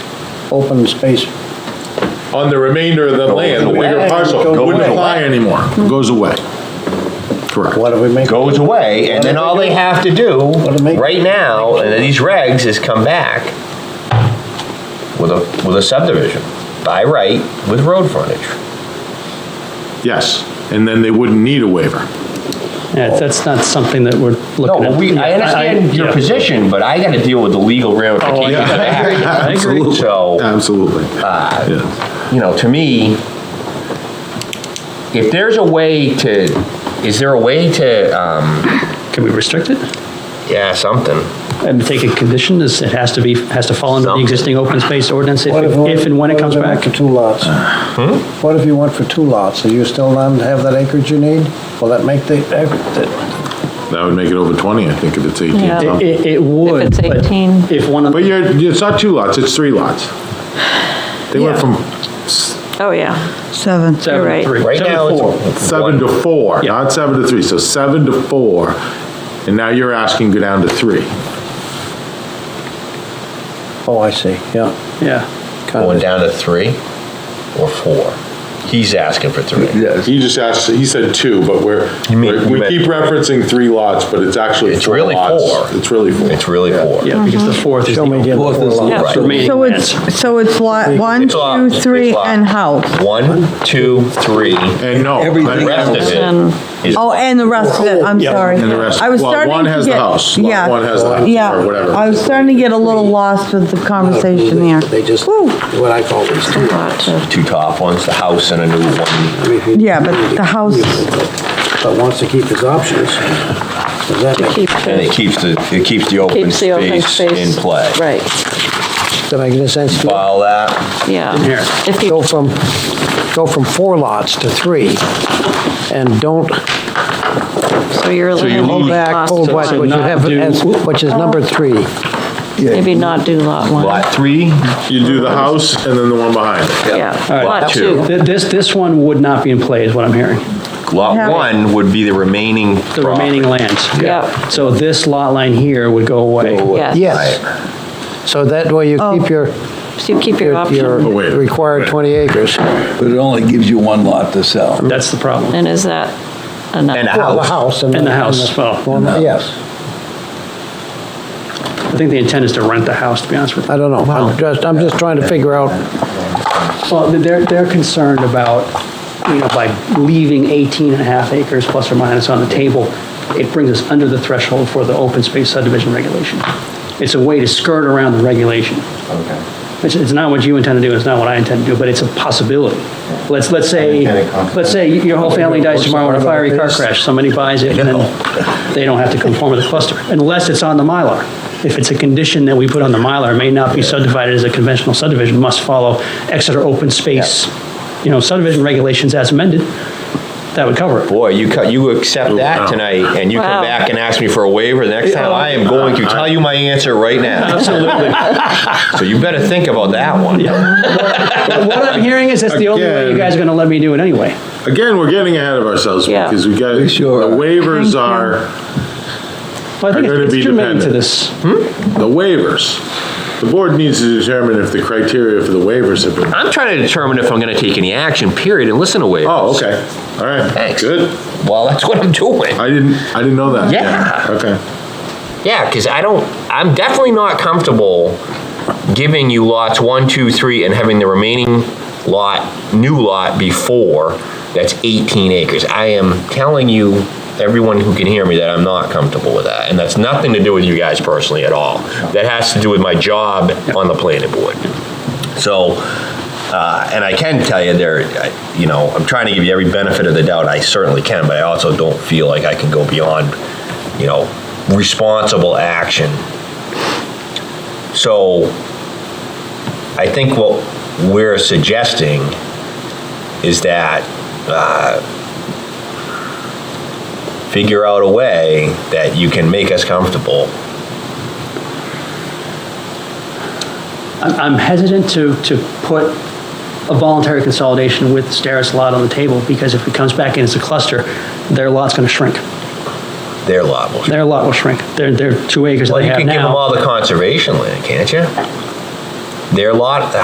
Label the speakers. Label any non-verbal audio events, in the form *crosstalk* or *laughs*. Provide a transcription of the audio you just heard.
Speaker 1: open space.
Speaker 2: on the remainder of the land, the bigger
Speaker 1: away.
Speaker 2: parcel,
Speaker 1: Goes
Speaker 2: wouldn't
Speaker 1: away.
Speaker 2: apply anymore, goes away. Correct.
Speaker 1: What do we make?
Speaker 3: goes away, and then all they have to do,
Speaker 1: do they do?
Speaker 3: right now, and these regs, is come back with a, with a subdivision, by right, with road frontage.
Speaker 2: Yes, and then they wouldn't need a waiver.
Speaker 4: Yeah, that's not something that we're
Speaker 3: No,
Speaker 4: looking at.
Speaker 3: we, I understand your
Speaker 4: yeah. Oh,
Speaker 3: position, but I gotta deal with the legal ramifications of that.
Speaker 4: *laughs* I agree. uh,
Speaker 3: So-
Speaker 2: Absolutely. Yeah.
Speaker 3: You know, to me, if there's a way to, is there a way to, um,
Speaker 4: Can we restrict it?
Speaker 3: yeah, something?
Speaker 4: And take a condition, is it has to be, has to fall under the
Speaker 3: Something.
Speaker 4: existing open space ordinance if
Speaker 1: What
Speaker 4: if and when it
Speaker 1: what
Speaker 4: comes
Speaker 1: if they went
Speaker 4: back?
Speaker 1: For two lots.
Speaker 2: Hmm?
Speaker 1: What if you went for two lots? Are you still not have that acreage you need? Will that make the,
Speaker 2: That would make it over 20, I think, if it's 18.
Speaker 5: Yeah.
Speaker 4: It,
Speaker 2: something.
Speaker 4: it- it would.
Speaker 5: it's
Speaker 4: but
Speaker 5: 18.
Speaker 4: If one of,
Speaker 2: But you're, it's not two lots, it's three lots. They went
Speaker 4: Yeah.
Speaker 2: from
Speaker 5: Oh, yeah.
Speaker 6: Seven.
Speaker 5: You're
Speaker 4: seven,
Speaker 5: right.
Speaker 4: three,
Speaker 3: Right
Speaker 4: seven,
Speaker 3: now,
Speaker 4: four.
Speaker 3: it's.
Speaker 2: seven
Speaker 3: one.
Speaker 2: to four,
Speaker 4: Yeah.
Speaker 2: not seven to three, so seven to four, and now you're asking go down to three.
Speaker 1: oh, I see, yeah.
Speaker 4: Yeah,
Speaker 1: kind
Speaker 3: Going
Speaker 1: of.
Speaker 3: down to three or four. He's asking for three.
Speaker 2: Yes. He just asked, he said two, but we're,
Speaker 3: You mean-
Speaker 2: we
Speaker 3: you meant-
Speaker 2: keep referencing three lots, but it's actually
Speaker 3: It's
Speaker 2: four
Speaker 3: really
Speaker 2: lots.
Speaker 3: four.
Speaker 2: It's really four.
Speaker 3: It's really four.
Speaker 4: yeah, because
Speaker 5: Mm-hmm.
Speaker 4: the fourth is
Speaker 1: Show me
Speaker 4: the
Speaker 1: again.
Speaker 7: Fourth is
Speaker 1: the
Speaker 3: Yeah.
Speaker 7: lot.
Speaker 3: Right.
Speaker 4: remaining.
Speaker 6: So
Speaker 4: lands.
Speaker 6: it's, so it's lot one,
Speaker 3: It's lot-
Speaker 6: two,
Speaker 3: it's
Speaker 6: three,
Speaker 3: lot.
Speaker 6: and house.
Speaker 3: One, two, three, and
Speaker 2: And no.
Speaker 7: Everything
Speaker 2: I-
Speaker 3: rest of
Speaker 5: And-
Speaker 3: it is.
Speaker 6: Oh, and the rest of it, I'm
Speaker 4: Yeah.
Speaker 6: sorry.
Speaker 2: And the rest,
Speaker 6: I was
Speaker 2: well,
Speaker 6: starting
Speaker 2: one
Speaker 6: to
Speaker 2: has the
Speaker 6: get-
Speaker 2: house,
Speaker 6: yeah,
Speaker 2: lot one has the house,
Speaker 6: Yeah,
Speaker 2: or whatever.
Speaker 6: I was starting to get a little lost with the conversation there.
Speaker 1: They just,
Speaker 6: Woo.
Speaker 1: what I call these two
Speaker 5: uh,
Speaker 1: lots.
Speaker 3: Two top ones, the house and a new one.
Speaker 1: I mean, if you-
Speaker 6: Yeah, but the house-
Speaker 1: But wants to keep his options, does that make,
Speaker 5: Keep
Speaker 3: And it
Speaker 5: the,
Speaker 3: keeps the, it keeps the open
Speaker 5: keeps the open
Speaker 3: space
Speaker 5: space.
Speaker 3: in play.
Speaker 5: Right,
Speaker 1: does that make any sense to you?
Speaker 3: Follow that,
Speaker 5: yeah.
Speaker 4: Here.
Speaker 5: If
Speaker 1: go
Speaker 5: you,
Speaker 1: from, go from four lots to three, and don't
Speaker 5: so you're.
Speaker 1: hold back, hold back, what you have, as- which is number three.
Speaker 5: Maybe not do lot one.
Speaker 3: lot three,
Speaker 2: You do the house and then the one behind it.
Speaker 5: Yeah,
Speaker 4: All right.
Speaker 5: lot two.
Speaker 4: Th- This, this one would not be in play, is what I'm hearing,
Speaker 3: lot
Speaker 6: Yeah.
Speaker 3: one would be the remaining.
Speaker 4: the remaining lands.
Speaker 5: Yeah,
Speaker 4: So this lot line here would go away.
Speaker 5: yes.
Speaker 1: Yes. So that way you
Speaker 4: Oh.
Speaker 1: keep your,
Speaker 5: So you keep your
Speaker 1: your
Speaker 5: option.
Speaker 2: Oh, wait.
Speaker 1: your required 20 acres.
Speaker 7: But it only gives you one lot to sell.
Speaker 4: That's the problem.
Speaker 5: And is that
Speaker 3: And a
Speaker 5: enough?
Speaker 1: Well, the
Speaker 3: house.
Speaker 1: house.
Speaker 4: And the house Oh. as well.
Speaker 1: Well, no, Yes,
Speaker 4: I think the intent is to rent the house, to be honest with you.
Speaker 1: I don't know. I'm just, I'm just trying to figure out,
Speaker 4: Well, they're, they're concerned about, you know, by leaving 18 and a half acres plus or minus on the table, it brings us under the threshold for the open space subdivision regulation. It's a way to skirt around the regulation. It's, it's not what you intend to do, it's not what I intend to do, but it's a possibility. Let's, let's say, let's say your whole family dies tomorrow in a fiery car crash, somebody buys it, and then they don't have to conform with the cluster, unless it's on the Mylar. If it's a condition that we put on the Mylar, it may not be subdivided as a conventional subdivision, must follow Exeter open space, you know, subdivision regulations as amended, that would cover it.
Speaker 3: Boy, you cut, you accept
Speaker 2: wow.
Speaker 3: that tonight, and you
Speaker 5: Wow.
Speaker 3: come back and ask me for a waiver, the next time I am going to tell you my answer right *laughs* now.
Speaker 4: Absolutely.
Speaker 3: So you better think about that one.
Speaker 4: But what I'm hearing is that's the only way you
Speaker 2: Again.
Speaker 4: guys are gonna let me do it anyway.
Speaker 2: Again, we're getting ahead of ourselves
Speaker 5: Yeah.
Speaker 2: because we got, the
Speaker 7: Sure.
Speaker 2: waivers
Speaker 6: Thank you.
Speaker 2: are,
Speaker 4: Well, I think
Speaker 2: Are gonna
Speaker 4: it's
Speaker 2: be
Speaker 4: it's germane to
Speaker 2: dependent.
Speaker 4: this.
Speaker 2: the waivers. The board needs to determine if the criteria for the waivers have been,
Speaker 3: I'm trying to determine if I'm gonna take any action, period, and listen to waivers.
Speaker 2: oh, okay, all right,
Speaker 3: Thanks.
Speaker 2: good.
Speaker 3: Well, that's what I'm doing.
Speaker 2: I didn't, I didn't know that.
Speaker 3: Yeah.
Speaker 2: Okay,
Speaker 3: Yeah, because I don't, I'm definitely not comfortable giving you lots one, two, three, and having the remaining lot, new lot before, that's 18 acres. I am telling you, everyone who can hear me, that I'm not comfortable with that. And that's nothing to do with you guys personally at all. That has to do with my job on the planning board. So, uh, and I can tell you there, I- you know, I'm trying to give you every benefit of the doubt, I certainly can, but I also don't feel like I can go beyond, you know, responsible action. So, I think what we're suggesting is that, uh, figure out a way that you can make us comfortable.
Speaker 4: I'm I'm hesitant to, to put a voluntary consolidation with Starrett's lot on the table, because if it comes back in as a cluster, their lot's gonna shrink.
Speaker 3: Their lot will.
Speaker 4: Their lot will shrink. Their, their two acres that
Speaker 3: Well,
Speaker 4: they
Speaker 3: you
Speaker 4: have
Speaker 3: can give them
Speaker 4: now.
Speaker 3: all the conservation land, can't you? Their lot,